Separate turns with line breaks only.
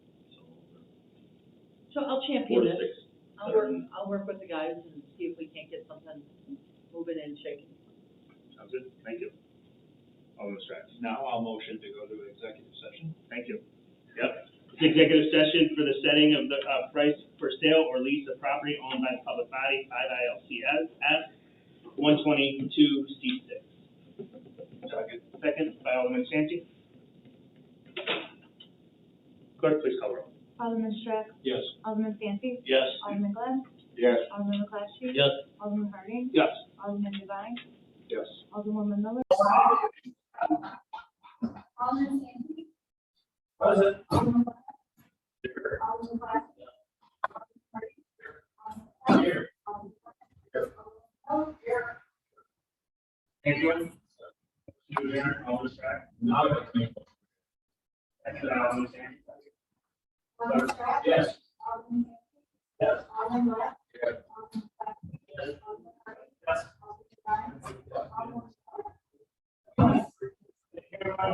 So I'll
Four
champion
to
this.
six.
I'll work, I'll work with the guys and see if we can't get something moving and shaking.
Sounds good, thank you. Alderman Stratton,
Now I'll motion to go to executive session.
thank you. Yep, It's executive session for the setting of the, uh, price for sale or lease of property owned by the public body, five ILCS, S, one twenty-two, C six.
Second.
Second by Alderman Santi. Clerk, please call roll.
Alderman Strack,
Yes.
Alderman Santi,
Yes.
Alderman Glenn,
Yes.
Alderman McClatchy.
Yes.
Alderman Harding,
Yes.
Alderman Devine,
Yes.
Alderwoman Miller,
Alderman Sandy.
Present.
Alderman Glenn. Alderman Glasgow. Alderman Here. Alderman Glenn.
Anyone? To adjourn, Alderman Strack.
Now.
Second by Alderman Santi.
Alderman Glasgow.
Yes.
Alderman Sandy.
Yes.
Alderman Glenn.